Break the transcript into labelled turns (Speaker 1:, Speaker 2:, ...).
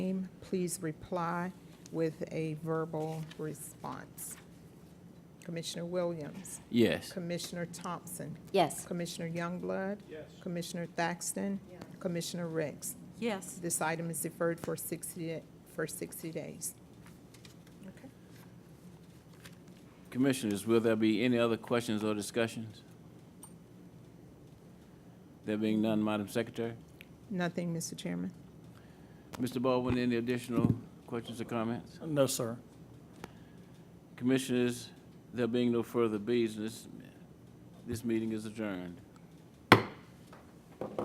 Speaker 1: please reply with a verbal response. Commissioner Williams?
Speaker 2: Yes.
Speaker 1: Commissioner Thompson?
Speaker 3: Yes.
Speaker 1: Commissioner Youngblood? Yes. Commissioner Thaxton? Commissioner Ricks?
Speaker 4: Yes.
Speaker 1: This item is deferred for 60, da- for 60 days. Okay.
Speaker 2: Commissioners, will there be any other questions or discussions? There being none, Madam Secretary.
Speaker 1: Nothing, Mr. Chairman.
Speaker 2: Mr. Baldwin, any additional questions or comments?
Speaker 5: No, sir.
Speaker 2: Commissioners, there being no further business, this meeting is adjourned.